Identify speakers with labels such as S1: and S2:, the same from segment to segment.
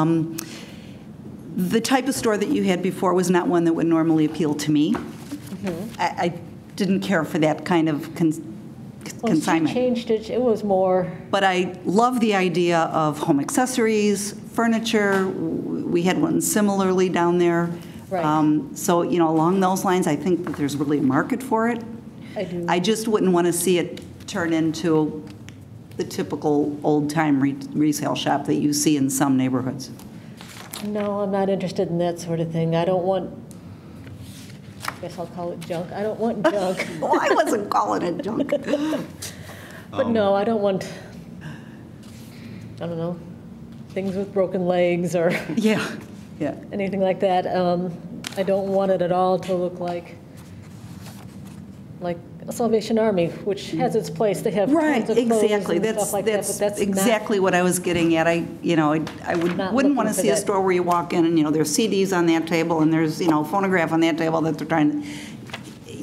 S1: Um, The type of store that you had before was not one that would normally appeal to me.
S2: Mm-hmm.
S1: I I didn't care for that kind of cons-
S2: Well, she
S1: consignment.
S2: changed it, it was more,
S1: But I love the idea of home accessories, furniture. We had one similarly down there.
S2: Right.
S1: Um, So, you know, along those lines, I think that there's really a market for it.
S2: I do.
S1: I just wouldn't want to see it turn into the typical old-time re- resale shop that you see in some neighborhoods.
S2: no, I'm not interested in that sort of thing. I don't want, I guess I'll call it junk. I don't want junk.
S1: Well, I wasn't calling it junk.
S2: But
S1: Um,
S2: no, I don't want, I don't know, things with broken legs or
S1: Yeah, yeah.
S2: anything like that. Um, I don't want it at all to look like, like Salvation Army, which has its place. They have
S1: Right,
S2: tons of clothes
S1: exactly.
S2: and
S1: That's,
S2: stuff like that,
S1: that's
S2: but that's not
S1: exactly what I was getting at. I, you know, I- I would-
S2: Not
S1: wouldn't
S2: looking
S1: want to
S2: for
S1: see a
S2: that.
S1: store where you walk in and, you know, there's CDs on that table and there's, you know, phonograph on that table that they're trying, to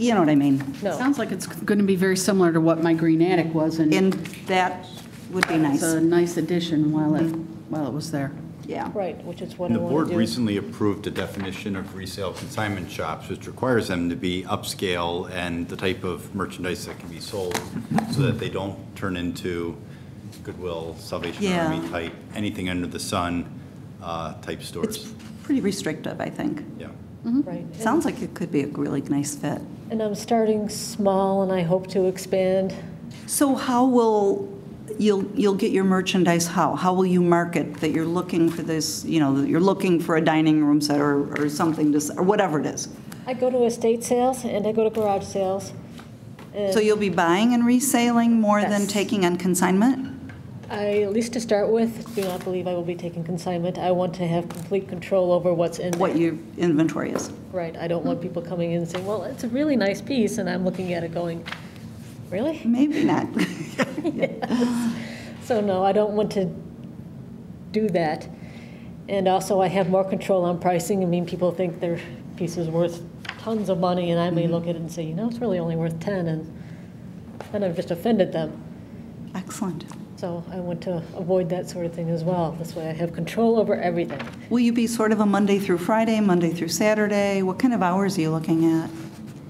S1: you know what I mean?
S2: No,
S3: Sounds like it's going to be very similar to what my green attic was, and
S1: And that would be
S3: it's
S1: nice,
S3: a nice addition while it, while it was there.
S1: yeah.
S2: right, which is what
S4: And
S2: I
S4: the
S2: want
S4: board
S2: to do.
S4: recently approved a definition of resale consignment shops, which requires them to be upscale and the type of merchandise that can be sold so that they don't turn into Goodwill, Salvation
S1: Yeah.
S4: Army type, anything under the sun uh, type
S1: It's
S4: stores.
S1: pretty restrictive, I think.
S4: Yeah.
S2: Right. And-
S1: Sounds like it could be a really nice fit.
S2: And I'm starting small, and I hope to expand.
S1: So how will, you'll, you'll get your merchandise how? How will you market that you're looking for this, you know, that you're looking for a dining room set or, or something, to s- or whatever it is?
S2: I go to estate sales, and I go to garage sales. and
S1: So you'll be buying and reselling more than
S2: Yes.
S1: taking on consignment?
S2: I, at least to start with, do not believe I will be taking consignment. I want to have complete control over what's in
S1: What
S2: there.
S1: your inventory is?
S2: Right, I don't want people coming in and saying, well, it's a really nice piece, and I'm looking at it going, really?
S1: Maybe not.
S2: So no, I don't want to do that. And also, I have more control on pricing. I mean, people think their piece is worth tons of money, and I may look at it and say, you know, it's really only worth 10, and then I've just offended them.
S1: Excellent.
S2: So I want to avoid that sort of thing as well. This way I have control over everything.
S1: Will you be sort of a Monday through Friday, Monday through Saturday? What kind of hours are you looking at?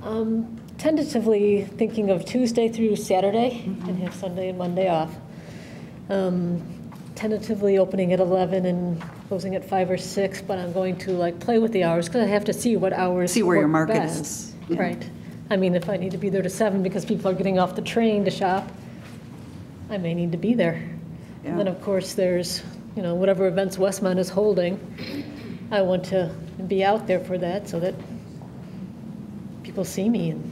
S2: Um, Tentatively thinking of Tuesday through Saturday and have Sunday and Monday off. Um, Tentatively opening at 11 and closing at 5 or 6, but I'm going to like play with the hours because I have to see what hours.
S1: See where your
S2: work
S1: market
S2: best.
S1: is. Yeah.
S2: Right. I mean, if I need to be there to 7 because people are getting off the train to shop, I may need to be there. And then,
S1: Yeah.
S2: of course, there's, you know, whatever events Westmont is holding, I want to be out there for that so that people see me. And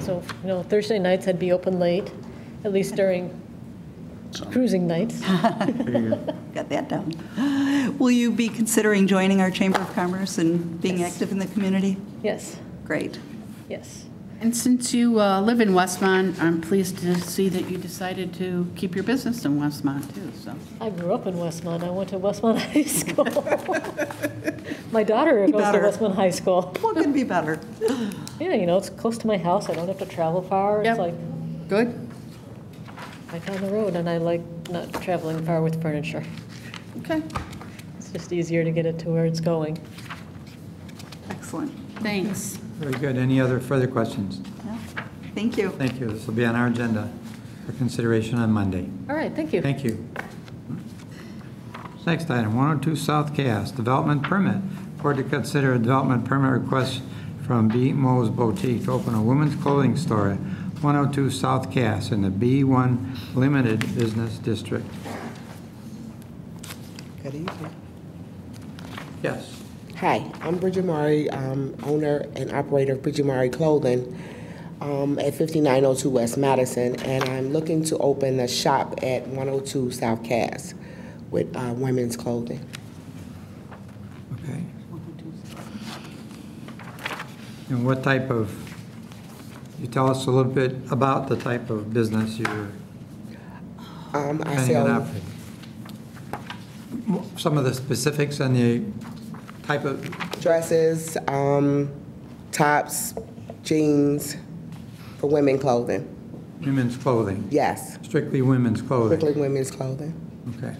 S2: so, you know, Thursday nights I'd be open late, at least during cruising nights.
S1: Got that down. Will you be considering joining our Chamber of Commerce and being active in the community?
S2: Yes,
S1: Great.
S2: yes.
S3: And since you uh, live in Westmont, I'm pleased to see that you decided to keep your business in Westmont, too, so.
S2: I grew up in Westmont. I went to Westmont High School. My daughter goes to
S1: better.
S2: Westmont High School.
S1: What could be better?
S2: Yeah, you know, it's close to my house. I don't have to travel far. It's
S3: Yep.
S2: like
S3: Good?
S2: right down the road, and I like not traveling far with furniture.
S3: Okay,
S2: It's just easier to get it to where it's going.
S1: Excellent.
S3: thanks.
S5: Very good. Any other further questions?
S1: Yeah. Thank you.
S5: Thank you. This will be on our agenda for consideration on Monday.
S2: All right, thank you.
S5: Thank you. Next item, 102 South Cass, development permit. Board to consider a development permit request from B. Mo's Boutique to open a women's clothing store at 102 South Cass in the B1 Limited Business District.
S6: Good evening.
S5: Yes.
S6: Hi, I'm Bridget Murray, um, owner and operator of Bridget Murray Clothing um, at 5902 West Madison, and I'm looking to open a shop at 102 South Cass with uh, women's clothing.
S5: Okay. And what type of, you tell us a little bit about the type of business you're
S6: Um, I
S5: planning on
S6: sell,
S5: operating? M- Some of the specifics and the type of,
S6: dresses, um, tops, jeans for women clothing.
S5: women's clothing,
S6: Yes,
S5: strictly women's clothing.
S6: strictly women's clothing.
S5: Okay.